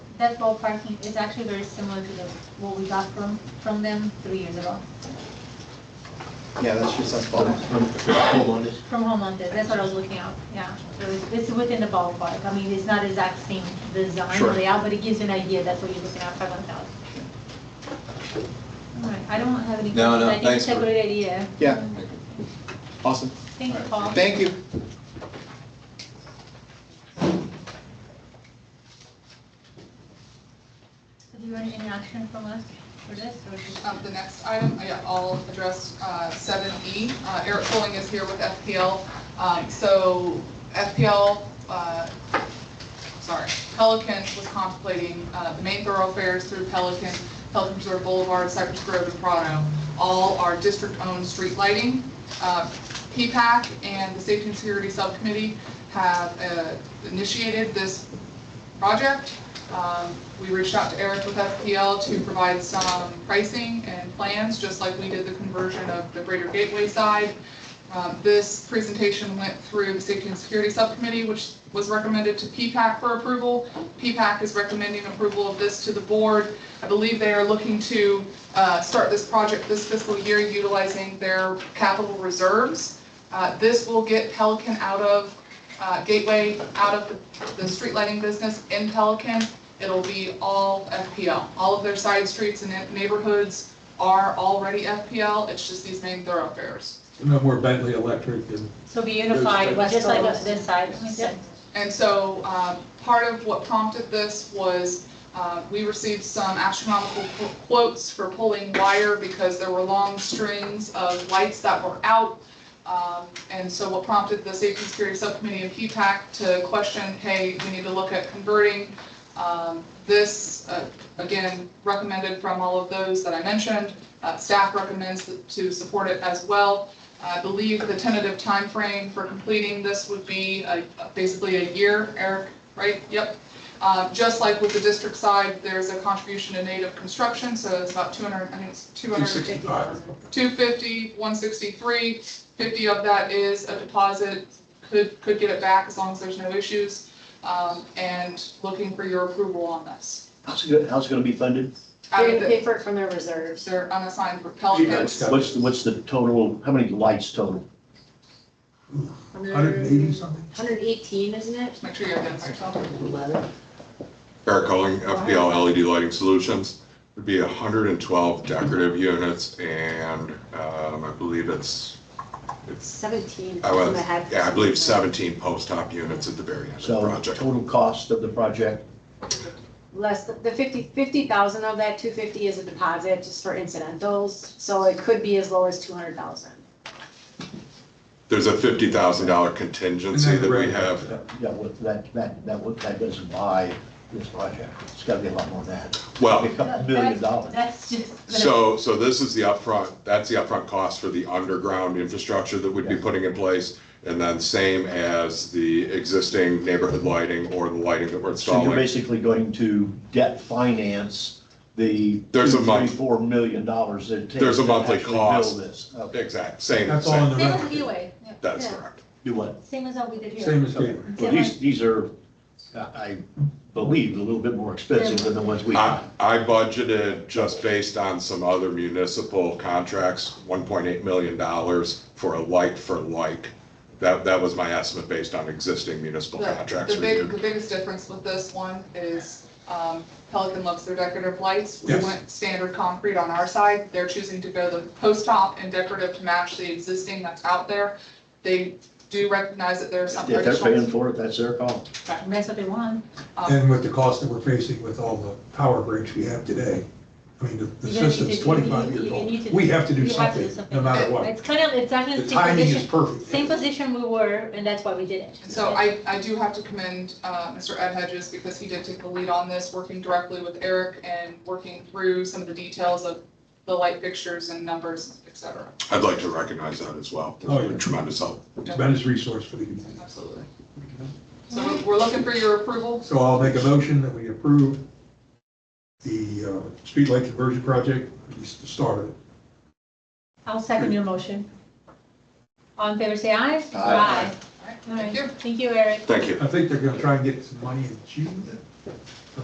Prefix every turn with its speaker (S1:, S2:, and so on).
S1: that ballparking is actually very similar to the, what we got from, from them three years ago,
S2: Yeah, that's just us ballpark.
S1: from Homelanders, that's what I was looking at, yeah. So it's, it's within the ballpark, I mean, it's not exact same design or
S2: Sure.
S1: layout, but it gives you an idea, that's what you're looking at, five hundred thousand. All right, I don't have any questions,
S3: No, no,
S1: I think it's
S3: thanks
S1: a
S3: for-
S1: great idea.
S2: Yeah, awesome.
S1: Thank you,
S2: All right.
S1: Paul.
S2: Thank you.
S1: So Do you want any action from us for this, or just?
S4: Um, The next item, I- I'll address seven E. Eric Pulling is here with FPL. Um, So FPL, uh, sorry, Pelican was contemplating uh, the main thoroughfares through Pelican, Pelican Preserve Boulevard, Cypress Grove, and Prado. All are district-owned street lighting. Uh, PPAC and the Safety and Security Subcommittee have uh, initiated this project. Um, We reached out to Eric with FPL to provide some pricing and plans, just like we did the conversion of the Greater Gateway side. Um, This presentation went through the Safety and Security Subcommittee, which was recommended to PPAC for approval. PPAC is recommending approval of this to the board. I believe they are looking to uh, start this project this fiscal year utilizing their capital reserves. Uh, This will get Pelican out of uh, Gateway out of the, the street lighting business in Pelican. It'll be all FPL. All of their side streets and neigh- neighborhoods are already FPL. It's just these main thoroughfares.
S5: No more Bentley Electric and
S1: So be
S5: unified,
S1: just like this side, I mean, that-
S4: And so, uh, part of what prompted this was, uh, we received some astronomical qu- quotes for pulling wire because there were long strings of lights that were out. Um, and so what prompted the Safety and Security Subcommittee and PPAC to question, hey, we need to look at converting. Um, this, uh, again, recommended from all of those that I mentioned. Uh, staff recommends to support it as well. I believe the tentative timeframe for completing this would be uh, basically a year, Eric, right? Yep. Uh, Just like with the district side, there's a contribution to native construction, so it's about 200, I think it's 250.
S5: 265.
S3: Um,
S4: 250, 163, 50 of that is a deposit, could, could get it back as long as there's no issues, um, and looking for your approval on this.
S6: How's it, go- how's it gonna be funded?
S4: Out
S7: They're
S4: of
S7: gonna pay
S4: the,
S7: for it from their reserves.
S4: they're unassigned
S5: Yeah, it's
S4: repellents.
S5: got-
S6: What's, the- what's the total, how many lights total?
S5: 180 something.
S7: 118, isn't it?
S4: Make sure you identify yourself.
S7: 11.
S3: Eric Culling, FPL LED E Lighting Solutions. It'd be 112 decorative units and um, I believe it's, it's,
S7: 17.
S3: I
S7: in
S3: was,
S7: the head.
S3: yeah, I believe 17 post-op units at the very end of the
S6: So
S3: project.
S6: total cost of the project,
S7: Less, th- the 50, 50,000 of that 250 is a deposit just for incidentals, so it could be as low as 200,000.
S3: There's a $50,000
S5: And
S3: contingency
S5: then
S3: that we
S5: Red-
S3: have.
S6: uh, yeah, what, that, that, that, would- that doesn't buy this project. It's gotta be a lot more than that.
S3: Well,
S6: A couple million dollars.
S1: That's just. the-
S3: So, so this is the upfront, that's the upfront cost for the underground infrastructure that we'd be putting in place. And then same as the existing neighborhood lighting or the lighting that we're
S6: So you're
S3: installing.
S6: basically going to debt finance the
S3: There's a
S6: two, three,
S3: month-
S6: four million dollars that it takes.
S3: There's a
S6: to
S3: monthly
S6: actually
S3: cost.
S6: Build this. Okay.
S3: Exact, same,
S5: That's all
S3: same.
S5: in the
S1: Same as
S5: red.
S1: Gateway, yeah.
S3: That's
S7: Yeah.
S3: correct.
S6: Do what?
S1: same as what we did here.
S5: Same as Gateway.
S6: Well, these, these are, I I believe, a little bit more expensive than the ones we.
S3: I, I budgeted just based on some other municipal contracts, one point eight million dollars for a like for like. That, that was my estimate based on existing municipal
S4: The-
S3: contracts
S4: The big,
S3: reviewed.
S4: the biggest difference with this one is um, Pelican loves their decorative lights. We
S5: Yes.
S4: went standard concrete on our side. They're choosing to go the post top and decorative to match the existing that's out there. They do recognize that there's some
S6: If they're paying
S4: traditional.
S6: for it, that's their call.
S1: And That's what they want.
S4: um,
S5: And with the cost that we're facing with all the power breaks we have today, I mean, the, the
S1: You're gonna need
S5: system's
S1: to-
S5: twenty-five
S1: you- you-
S5: years
S1: you need
S5: old.
S1: to-
S5: We have to do
S1: you have to do
S5: something,
S1: something.
S5: no matter what.
S1: It's kind of, it's actually
S5: The
S1: the same
S5: timing is
S1: position,
S5: perfect.
S1: same position we were, and that's why we did it.
S4: And so I, I do have to commend uh, Mr. Ed Hedges because he did take the lead on this, working directly with Eric and working through some of the details of the light fixtures and numbers, et cetera.
S3: I'd like to recognize that as well.
S5: Oh, yeah.
S3: Tremendous help.
S5: Tremendous resource for the community.
S4: Absolutely. So we're- we're looking for your approval.
S5: So I'll make a motion that we approve the, uh, streetlight conversion project, at least the start of it.
S1: I'll second your motion. All in favor, say aye.
S6: Aye.
S4: All right,
S1: All right,
S4: Thank you.
S1: thank you, Eric.
S3: Thank you.
S5: I think they're gonna try and get some money in June,